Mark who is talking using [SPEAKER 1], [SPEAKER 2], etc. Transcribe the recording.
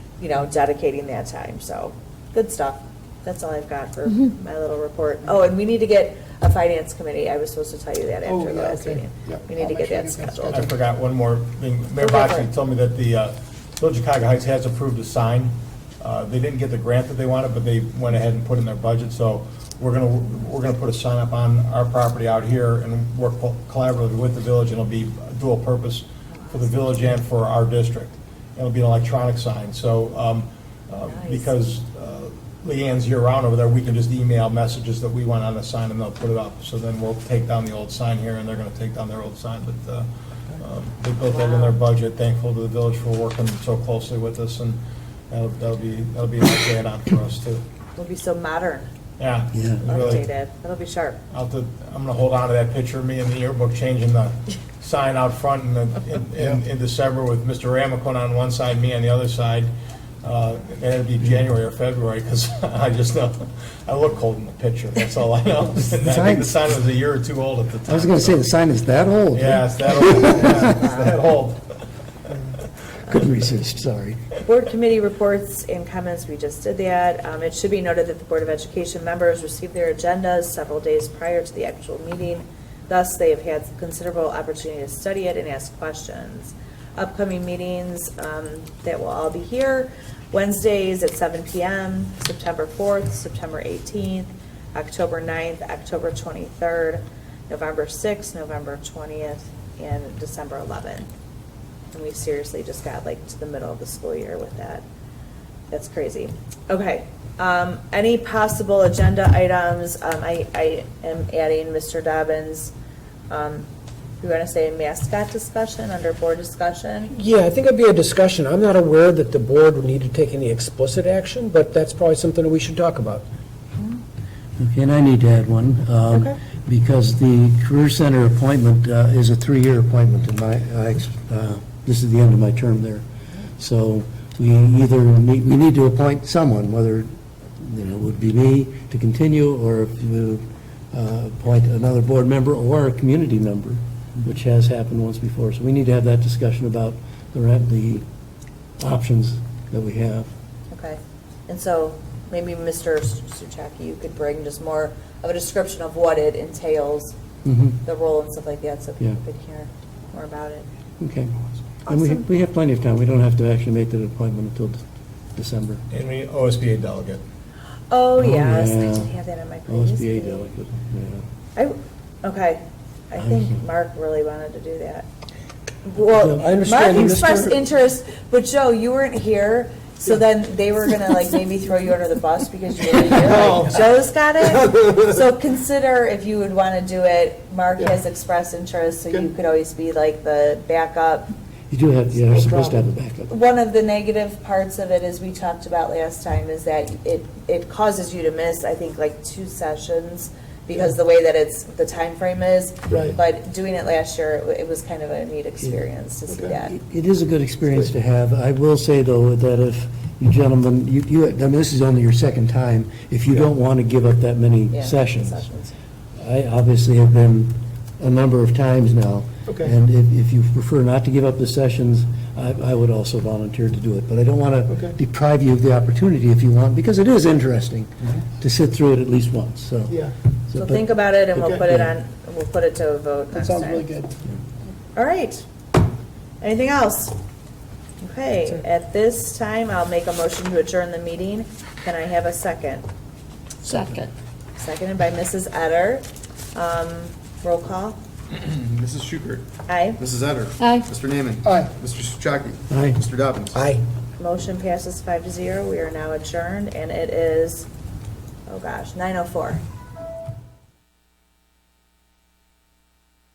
[SPEAKER 1] you know, dedicating that time, so, good stuff. That's all I've got for
[SPEAKER 2] Mhm.
[SPEAKER 1] my little report. Oh, and we need to get a finance committee, I was supposed to tell you that
[SPEAKER 3] Oh,
[SPEAKER 1] after the
[SPEAKER 3] yeah,
[SPEAKER 1] last
[SPEAKER 3] okay.
[SPEAKER 1] meeting.
[SPEAKER 4] Yeah.
[SPEAKER 1] We need to
[SPEAKER 3] I'll
[SPEAKER 1] get
[SPEAKER 3] make sure
[SPEAKER 1] that
[SPEAKER 3] it gets
[SPEAKER 1] scheduled.
[SPEAKER 5] I forgot one more thing. Mayor
[SPEAKER 1] Go for
[SPEAKER 5] Boxley
[SPEAKER 1] it.
[SPEAKER 5] told me that the uh, Village of Cuyahoga Heights has approved a sign. Uh, They didn't get the grant that they wanted, but they went ahead and put in their budget, so we're gonna, we're gonna put a sign up on our property out here and work co- collaboratively with the village, and it'll be dual purpose for the village and for our district. It'll be an electronic sign, so, um, uh,
[SPEAKER 1] Nice.
[SPEAKER 5] because uh, Leanne's year-round over there, we can just email messages that we want on the sign, and they'll put it up. So then we'll take down the old sign here, and they're gonna take down their old sign, but uh, um, they built that in their budget, thankful to the village for working so closely with us, and that'll that'll be, that'll be a nice add-on for us, too.
[SPEAKER 1] It'll be so modern,
[SPEAKER 5] Yeah.
[SPEAKER 4] Yeah.
[SPEAKER 5] really.
[SPEAKER 1] updated, it'll be sharp.
[SPEAKER 5] I'll have to- I'm gonna hold on to that picture, of me in the yearbook, changing the sign out front in, the- in- in, in December with Mr. Ramacone on one side, me on the other side. Uh, and it'll be January or February, because I just know, I look cold in the picture, that's all I know. And I think the sign was a year or two old at the time.
[SPEAKER 4] I was going to say, the sign is that old?
[SPEAKER 5] Yeah, it's that old, yeah, it's that old.
[SPEAKER 4] Couldn't resist, sorry.
[SPEAKER 1] Board committee reports and comments, we just did that. Um, It should be noted that the Board of Education members received their agendas several days prior to the actual meeting. Thus, they have had considerable opportunity to study it and ask questions. Upcoming meetings um, that will all be here, Wednesdays at 7 PM, September 4th, September 18th, October 9th, October 23rd, November 6th, November 20th, and December 11th. And we seriously just got like to the middle of the school year with that. That's crazy. Okay, um, any possible agenda items, um, I, I am adding Mr. Dobbins. Um, you wanna say mascot discussion under board discussion?
[SPEAKER 3] Yeah, I think it'd be a discussion. I'm not aware that the board would need to take any explicit action, but that's probably something that we should talk about.
[SPEAKER 6] Okay, and I need to add one. um,
[SPEAKER 1] Okay.
[SPEAKER 6] Because the Career Center appointment uh, is a three-year appointment, and my, I ex- uh, this is the end of my term there. So we either, need we need to appoint someone, whether, you know, it would be me to continue, or if you uh, appoint another board member or a community member, which has happened once before. So we need to have that discussion about the ra- the options that we have.
[SPEAKER 1] Okay, and so maybe Mr. Suchaki, you could bring just more of a description of what it entails,
[SPEAKER 6] Mhm.
[SPEAKER 1] the role and stuff like that, so
[SPEAKER 6] Yeah.
[SPEAKER 1] people could hear more about it.
[SPEAKER 6] Okay. And we,
[SPEAKER 1] Awesome.
[SPEAKER 6] we have plenty of time. We don't have to actually make that appointment until De- December.
[SPEAKER 5] And we, OSBA delegate.
[SPEAKER 1] Oh, yes, I
[SPEAKER 6] yeah.
[SPEAKER 1] didn't have that on my previous
[SPEAKER 6] OSBA
[SPEAKER 1] meeting.
[SPEAKER 6] delegate, yeah.
[SPEAKER 1] I, okay, I
[SPEAKER 3] Um,
[SPEAKER 1] think
[SPEAKER 6] Mhm.
[SPEAKER 1] Mark really wanted to do that.
[SPEAKER 3] Yeah,
[SPEAKER 1] Well,
[SPEAKER 3] I
[SPEAKER 1] Mark
[SPEAKER 3] understand that
[SPEAKER 1] expressed
[SPEAKER 3] Mr.
[SPEAKER 1] interest, but Joe, you weren't here, so then they were gonna like maybe throw you under the bus because you were here,
[SPEAKER 3] Oh.
[SPEAKER 1] like, Joe's got it. So consider if you would wanna do it, Mark has expressed interest, so you could always be like the backup.
[SPEAKER 6] You do have, yeah, you're supposed to have a backup.
[SPEAKER 1] One of the negative parts of it, as we talked about last time, is that it, it causes you to miss, I think, like two sessions because the way that it's, the time frame is.
[SPEAKER 6] Right.
[SPEAKER 1] But doing it last year, it wa- it was kind of a neat experience to see that.
[SPEAKER 6] It it is a good experience to have. I will say, though, that if you gentlemen, you, you, I mean, this is only your second time, if you don't want to give up that many
[SPEAKER 1] Yeah,
[SPEAKER 6] sessions. I obviously have been a number of times now.
[SPEAKER 3] Okay.
[SPEAKER 6] And if, if you prefer not to give up the sessions, I, I would also volunteer to do it. But I don't want
[SPEAKER 3] Okay.
[SPEAKER 6] to deprive you of the opportunity if you want, because it is interesting
[SPEAKER 3] Mm-hmm.
[SPEAKER 6] to sit through it at least once, so. So,
[SPEAKER 1] So
[SPEAKER 6] but-
[SPEAKER 1] think about it and we'll
[SPEAKER 3] Okay.
[SPEAKER 1] put it on, we'll put it to a vote
[SPEAKER 3] That
[SPEAKER 1] next
[SPEAKER 3] sounds really
[SPEAKER 1] time.
[SPEAKER 3] good.
[SPEAKER 1] All right. Anything else? Okay, at this time, I'll make a motion to adjourn the meeting. Can I have a second?
[SPEAKER 2] Second.
[SPEAKER 1] Seconded by Mrs. Etter. Um, roll call.
[SPEAKER 7] Mrs. Schubert.
[SPEAKER 1] Aye.
[SPEAKER 7] Mrs. Etter.
[SPEAKER 2] Aye.
[SPEAKER 7] Mr. Naaman.
[SPEAKER 3] Aye.
[SPEAKER 7] Mr. Souchaki.
[SPEAKER 6] Aye.
[SPEAKER 7] Mr. Dobbins.
[SPEAKER 3] Aye.
[SPEAKER 1] Motion passes five to zero. We are now adjourned, and it is, oh gosh, 9:04.